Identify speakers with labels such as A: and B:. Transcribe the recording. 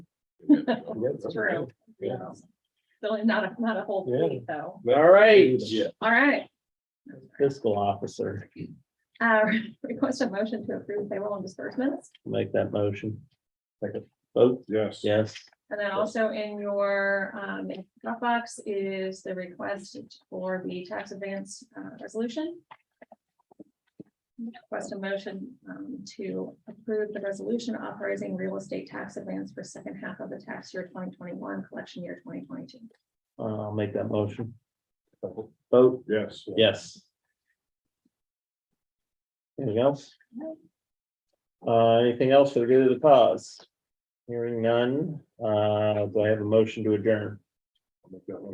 A: True.
B: Yeah.
A: So not a, not a whole fleet though.
B: All right.
C: Yeah.
A: All right.
C: Fiscal officer,
A: Uh, request a motion to approve payroll and disbursements.
C: make that motion. Second. Vote,
B: Yes.
C: yes,
A: And then also in your, um, Dropbox is the request for the tax advance, uh, resolution. Request a motion, um, to approve the resolution authorizing real estate tax advance for second half of the tax year twenty twenty-one, collection year twenty twenty-two.
C: uh, I'll make that motion. Vote,
B: Yes.
C: yes. Anything else?
A: No.
C: Uh, anything else for the good of the cause? Hearing none, uh, do I have a motion to adjourn?